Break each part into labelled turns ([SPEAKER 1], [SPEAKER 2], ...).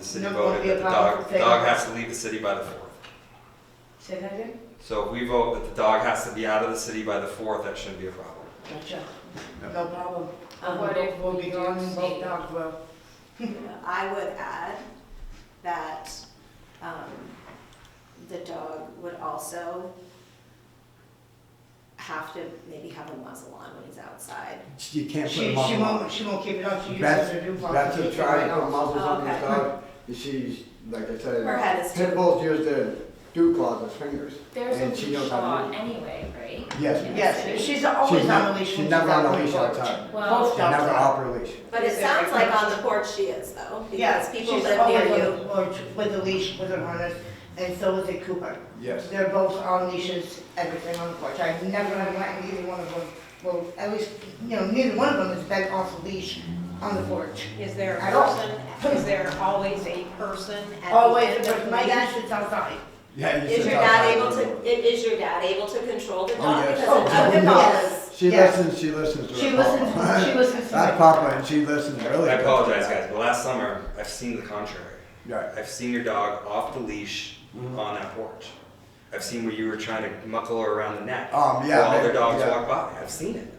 [SPEAKER 1] city
[SPEAKER 2] No, it won't
[SPEAKER 1] voted
[SPEAKER 2] be
[SPEAKER 1] that the
[SPEAKER 2] a problem
[SPEAKER 1] dog,
[SPEAKER 2] for
[SPEAKER 1] the dog
[SPEAKER 2] families.
[SPEAKER 1] has to leave the city by the fourth.
[SPEAKER 2] Say that again?
[SPEAKER 1] So if we vote that the dog has to be out of the city by the fourth, that shouldn't be a problem.
[SPEAKER 2] Gotcha. No problem. Um,
[SPEAKER 3] What if
[SPEAKER 2] we'll
[SPEAKER 3] we
[SPEAKER 2] be
[SPEAKER 3] don't
[SPEAKER 2] doing
[SPEAKER 3] see-
[SPEAKER 2] both dogs well.
[SPEAKER 4] I would add that um, the dog would also have to maybe have a muzzle on when he's outside.
[SPEAKER 5] You can't put
[SPEAKER 2] She,
[SPEAKER 5] a
[SPEAKER 2] she
[SPEAKER 5] muzzle on.
[SPEAKER 2] won't, she won't keep it on, she uses
[SPEAKER 5] That's,
[SPEAKER 2] her new box.
[SPEAKER 5] that's
[SPEAKER 2] to
[SPEAKER 5] a
[SPEAKER 2] take it
[SPEAKER 5] try
[SPEAKER 2] right
[SPEAKER 5] to put
[SPEAKER 2] off.
[SPEAKER 5] muzzles on this
[SPEAKER 4] Oh, Okay.
[SPEAKER 5] dog. You see, like I said.
[SPEAKER 4] Her head is too-
[SPEAKER 5] Pit bulls use their dew claws as fingers.
[SPEAKER 3] There's
[SPEAKER 5] And
[SPEAKER 3] a
[SPEAKER 5] she
[SPEAKER 3] leash
[SPEAKER 5] knows how to
[SPEAKER 3] law
[SPEAKER 5] use
[SPEAKER 3] anyway, right?
[SPEAKER 5] Yes.
[SPEAKER 3] In the
[SPEAKER 2] Yes,
[SPEAKER 3] city?
[SPEAKER 2] she's always
[SPEAKER 5] She's
[SPEAKER 2] on
[SPEAKER 5] not-
[SPEAKER 2] the leash.
[SPEAKER 5] she's
[SPEAKER 2] when
[SPEAKER 5] never
[SPEAKER 2] out
[SPEAKER 5] on a
[SPEAKER 2] the
[SPEAKER 5] leash all the
[SPEAKER 2] porch.
[SPEAKER 5] time.
[SPEAKER 3] Well-
[SPEAKER 2] Both
[SPEAKER 5] She
[SPEAKER 2] dogs
[SPEAKER 5] never
[SPEAKER 2] are.
[SPEAKER 5] off her leash.
[SPEAKER 4] But it sounds like on the porch she is though, because
[SPEAKER 2] Yeah,
[SPEAKER 4] people
[SPEAKER 2] she's
[SPEAKER 4] live
[SPEAKER 2] always
[SPEAKER 4] near
[SPEAKER 2] on
[SPEAKER 4] you.
[SPEAKER 2] the porch with a leash, with her harness, and so is a Cooper.
[SPEAKER 5] Yes.
[SPEAKER 2] They're both on leashes, everything on the porch. I've never had my, neither one of them, well, at least, you know, neither one of them has been off the leash on the porch.
[SPEAKER 6] Is there
[SPEAKER 2] I
[SPEAKER 6] a
[SPEAKER 2] don't-
[SPEAKER 6] person, is there always a person at the
[SPEAKER 2] Always,
[SPEAKER 6] end of
[SPEAKER 2] but
[SPEAKER 6] the
[SPEAKER 2] my
[SPEAKER 6] leash?
[SPEAKER 2] dad sits outside.
[SPEAKER 5] Yeah. you
[SPEAKER 4] Is
[SPEAKER 5] should
[SPEAKER 4] your
[SPEAKER 5] tell her
[SPEAKER 4] dad
[SPEAKER 5] how
[SPEAKER 4] able
[SPEAKER 5] do
[SPEAKER 4] to,
[SPEAKER 5] it.
[SPEAKER 4] i- is your dad able to control the
[SPEAKER 5] Oh,
[SPEAKER 4] dog?
[SPEAKER 5] yes.
[SPEAKER 4] Because
[SPEAKER 2] Oh,
[SPEAKER 4] other
[SPEAKER 2] yes.
[SPEAKER 4] dogs,
[SPEAKER 5] She
[SPEAKER 2] Yeah.
[SPEAKER 5] listens, she listens to her
[SPEAKER 2] She
[SPEAKER 5] papa.
[SPEAKER 2] listens, she listens to
[SPEAKER 5] That's
[SPEAKER 2] my,
[SPEAKER 5] Papa and she listens really.
[SPEAKER 1] I
[SPEAKER 5] good.
[SPEAKER 1] apologize, guys, but last summer, I've seen the contrary.
[SPEAKER 5] Right.
[SPEAKER 1] I've seen your dog off the leash
[SPEAKER 5] Mhm.
[SPEAKER 1] on that porch. I've seen where you were trying to muckle her around the neck
[SPEAKER 5] Um, yeah,
[SPEAKER 1] while other
[SPEAKER 5] maybe,
[SPEAKER 1] dogs
[SPEAKER 5] yeah.
[SPEAKER 1] walk by. I've seen it.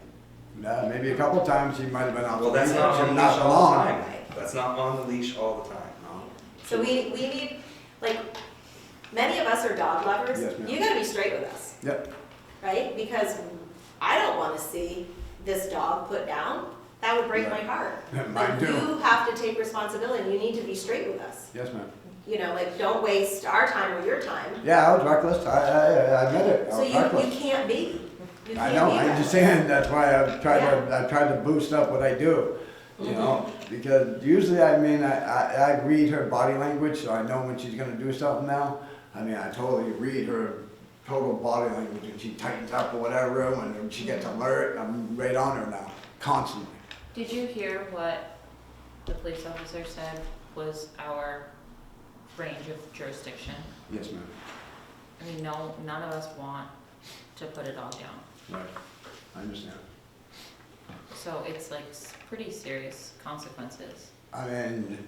[SPEAKER 5] No, maybe a couple times she might have been off.
[SPEAKER 1] Well,
[SPEAKER 5] the
[SPEAKER 1] that's
[SPEAKER 5] leash,
[SPEAKER 1] not
[SPEAKER 5] but
[SPEAKER 1] on the
[SPEAKER 5] not
[SPEAKER 1] leash all
[SPEAKER 5] long.
[SPEAKER 1] the time. That's not on the leash all the time.
[SPEAKER 4] so we, we need, like, many of us are dog lovers.
[SPEAKER 5] Yes, ma'am.
[SPEAKER 4] You gotta be straight with us.
[SPEAKER 5] Yep.
[SPEAKER 4] right? Because I don't want to see this dog put down. That would break my heart.
[SPEAKER 5] Mine
[SPEAKER 4] Like,
[SPEAKER 5] too.
[SPEAKER 4] You have to take responsibility. You need to be straight with us.
[SPEAKER 5] Yes, ma'am.
[SPEAKER 4] You know, like don't waste our time or your time.
[SPEAKER 5] Yeah, I was reckless. I, I, I admit it. I
[SPEAKER 4] So
[SPEAKER 5] was
[SPEAKER 4] you,
[SPEAKER 5] reckless.
[SPEAKER 4] you can't be. You
[SPEAKER 5] I
[SPEAKER 4] can't
[SPEAKER 5] know,
[SPEAKER 4] be
[SPEAKER 5] I
[SPEAKER 4] that.
[SPEAKER 5] understand, that's why I've tried to, I've tried to boost up what I do, you know? Because usually, I mean, I, I, I read her body language, so I know when she's gonna do something now. I mean, I totally read her total body language, when she tightens up or whatever, when she gets alert, I'm right on her now, constantly.
[SPEAKER 3] Did you hear what the police officer said was our range of jurisdiction?
[SPEAKER 5] Yes, ma'am.
[SPEAKER 3] I mean, no, none of us want to put a dog down.
[SPEAKER 5] Right. I understand.
[SPEAKER 3] So it's like s- pretty serious consequences.
[SPEAKER 5] I mean,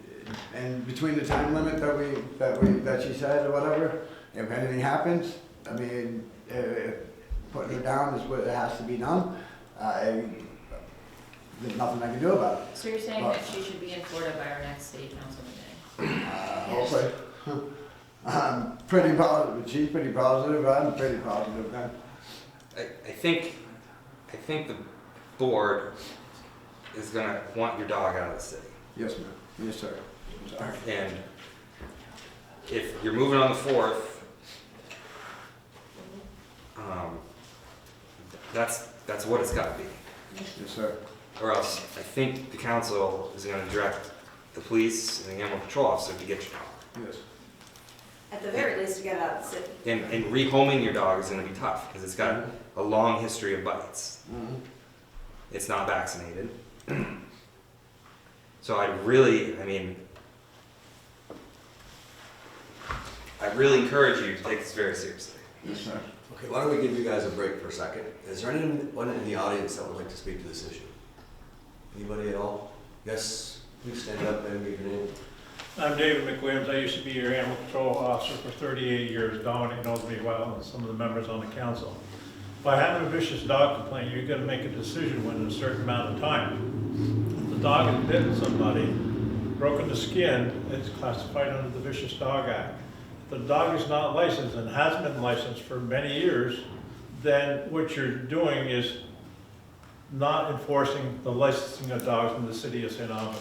[SPEAKER 5] and between the time limit that we, that we, that she said or whatever, if anything happens, I mean, eh, eh, putting her down is what has to be done. I, there's nothing I can do about Uh,
[SPEAKER 3] So you're saying that she should be in Florida by our next city council meeting?
[SPEAKER 5] it. Uh, Hopefully. I'm pretty positive, she's pretty positive, I'm pretty positive, man.
[SPEAKER 1] I, I think, I think the board is gonna want your dog out of the city.
[SPEAKER 5] Yes, ma'am. Yes, sir. Sorry.
[SPEAKER 1] And if you're moving on the fourth, um, that's, that's what it's gotta be.
[SPEAKER 5] Yes, sir.
[SPEAKER 1] Or else, I think the council is gonna direct the police and the animal control officer to get your dog.
[SPEAKER 5] Yes.
[SPEAKER 4] At the very least, you get out of the city.
[SPEAKER 1] And, and rehoming your dog is gonna be tough, because it's got a long history of bites.
[SPEAKER 5] Mhm.
[SPEAKER 1] It's not vaccinated. So I really, I mean, I really encourage you to take this very seriously.
[SPEAKER 5] Yes, sir.
[SPEAKER 7] Okay, why don't we give you guys a break for a second? Is there anyone in the audience that would like to speak to this issue? Anybody at all? Yes, please stand up and give your name.
[SPEAKER 8] I'm David McWilliams. I used to be your animal control officer for 38 years. Dominic knows me well and some of the members on the council. By having a vicious dog complaint, you're gonna make a decision within a certain amount of time. If the dog has bitten somebody, broken the skin, it's classified under the Vicious Dog Act. If the dog is not licensed and has been licensed for many years, then what you're doing is not enforcing the licensing of dogs in the city of St. Albans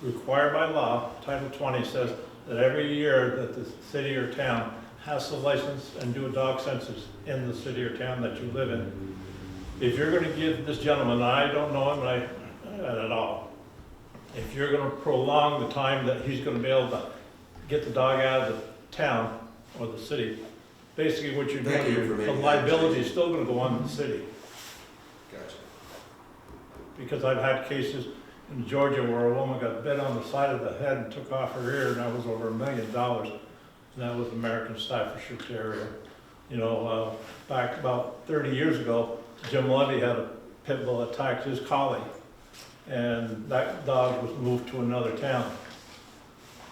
[SPEAKER 8] required by law, Title 20 says that every year that the city or town has to license and do a dog census in the city or town that you live in. If you're gonna give this gentleman, I don't know him and I, at all, if you're gonna prolong the time that he's gonna be able to get the dog out of the town or the city, basically what you're
[SPEAKER 7] Thank you for
[SPEAKER 8] doing, the
[SPEAKER 7] making that
[SPEAKER 8] liability is still gonna go on the city
[SPEAKER 1] Gotcha.
[SPEAKER 8] because I've had cases in Georgia where a woman got bit on the side of the head and took off her ear, and that was over a million dollars. And that was American Staffordshire Terrier. You know, uh, back about thirty years ago, Jim Levy had a pit bull attack his collie, and that dog was moved to another town.